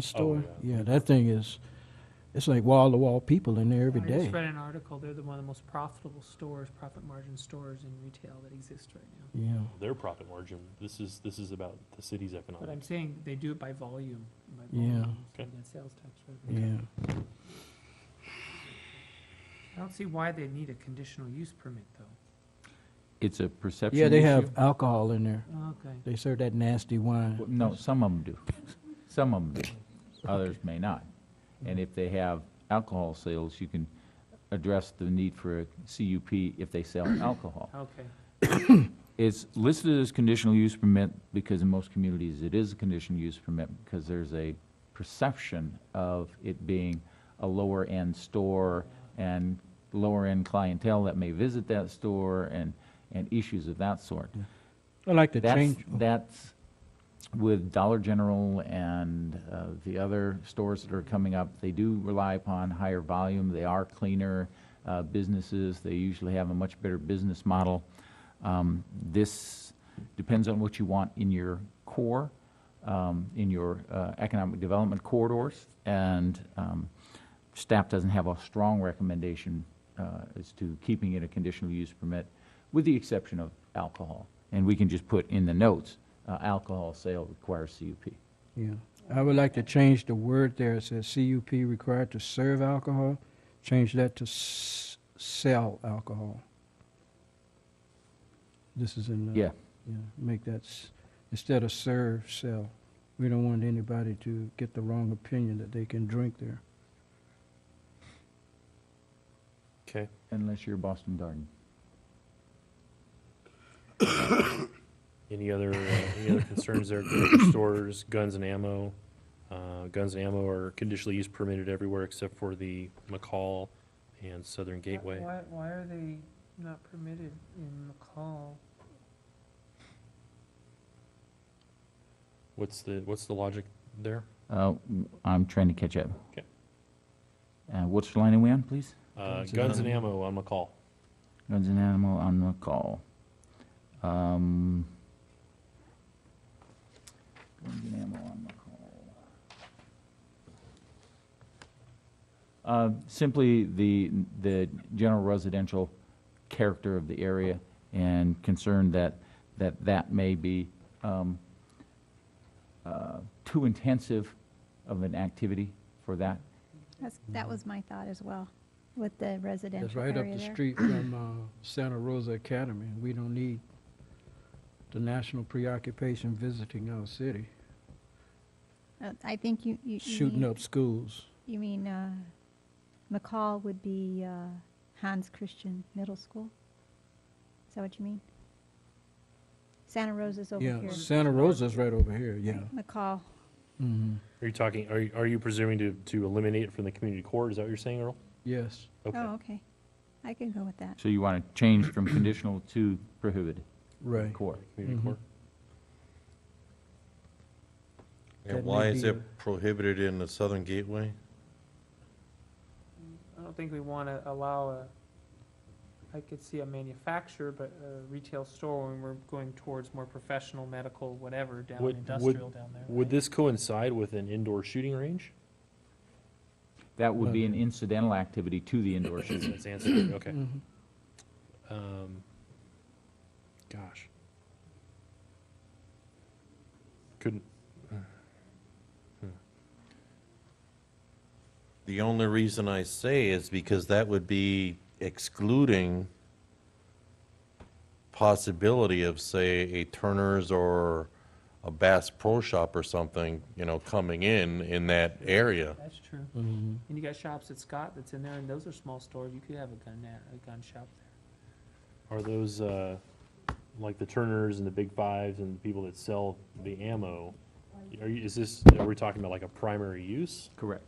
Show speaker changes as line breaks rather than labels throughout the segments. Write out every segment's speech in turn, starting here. Oh,
store.
yeah.
Yeah, that thing is, it's like wall to wall people in there every
I just
day.
read an article, they're the one of the most profitable stores, profit margin stores in retail that exist right now.
Yeah,
their profit margin. This is, this is about the city's
But I'm
economics.
saying they do it by volume, by
Yeah.
volume, so
Okay.
that sales tax revenue.
yeah.
I don't see why they need a conditional use permit, though.
It's a perception
Yeah, they
issue?
have alcohol in there.
Okay.
They serve that nasty wine.
Well, No, some of them do. Some of them do. Others may not. And if they have alcohol sales, you can address the need for a CUP if they sell alcohol.
Okay,
It's listed as conditional use permit because in most communities, it is a conditional use permit because there's a perception of it being a lower-end store and lower-end clientele that may visit that store and, and issues of that sort.
I like to
That's,
change.
that's with Dollar General and uh, the other stores that are coming up, they do rely upon higher volume, they are cleaner uh, businesses, they usually have a much better business model. Um, This depends on what you want in your core, um, in your uh, economic development corridors, and um, staff doesn't have a strong recommendation uh, as to keeping it a conditional use permit, with the exception of alcohol. And we can just put in the notes, uh, alcohol sale requires CUP.
Yeah, I would like to change the word there. It says CUP required to serve alcohol. Change that to s- sell alcohol. This is in the.
Yeah,
Yeah, make that, s- instead of serve, sell. We don't want anybody to get the wrong opinion that they can drink there.
Okay.
unless you're Boston Garden.
Any other, uh, any other concerns there? Grocery Stores, guns and ammo. Uh, Guns and ammo are conditionally use permitted everywhere except for the McCall and Southern Gateway.
Why, why are they not permitted in McCall?
What's the, what's the logic there?
Uh, w- I'm trying to catch up.
Okay.
Uh, Which line are we on, please?
Uh,
Guns and
Guns and ammo on McCall.
Guns and animal on the call. Um, Guns and ammo on the call. Uh, Simply the, the general residential character of the area and concern that, that that may be um, uh, too intensive of an activity for that.
That's, that was my thought as well, with the
That's
residential
right up
area
the
there.
street from uh, Santa Rosa Academy. We don't need the national preoccupation visiting our city,
Uh, I think you, you, you
shooting
mean,
up schools.
you mean, uh, McCall would be, uh, Hans Christian Middle School? Is that what you mean? Santa Rosa's over
Yeah,
here.
Santa Rosa's right over here, yeah.
McCall,
Mhm.
Are you talking, are, you- are you presuming to, to eliminate it from the community core? Is that what you're saying, Earl?
Yes,
oh,
Okay.
okay, I can go with that.
So you want to change from conditional to prohibited
right.
core.
Community
Mhm.
core.
That
And
may
why is
be
it
a-
prohibited in the Southern Gateway?
I don't think we want to allow a, I could see a manufacturer, but a retail store when we're going towards more professional, medical, whatever, down
Would- would-
industrial down there.
Would
right?
this coincide with an indoor shooting range?
That would be an incidental activity to the indoor shooting.
That's answered, okay.
Mhm.
Um, gosh. Couldn't,
The only reason I say is because that would be excluding possibility of, say, a Turner's or a Bass Pro Shop or something, you know, coming in, in that area.
That's true.
Mhm.
And you got shops at Scott that's in there, and those are small stores. You could have a gun, at- a gun shop there.
are those, uh, like the Turners and the Big Fives and the people that sell the ammo, are you, is this, are we talking about like a primary use?
Correct.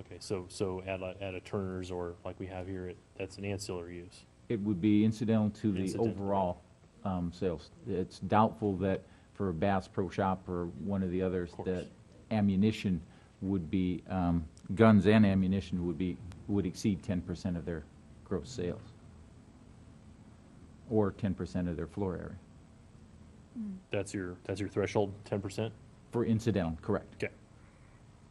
Okay, so, so at a, at a Turner's or like we have here, it- that's an ancillary use.
It would be incidental to the
Incidental.
overall um, sales. It's doubtful that for a Bass Pro Shop or one of the others,
course.
that ammunition would be, um, guns and ammunition would be, would exceed 10% of their gross sales, or 10% of their floor area.
That's your, that's your threshold, ten percent?
For incidental, correct.
Okay.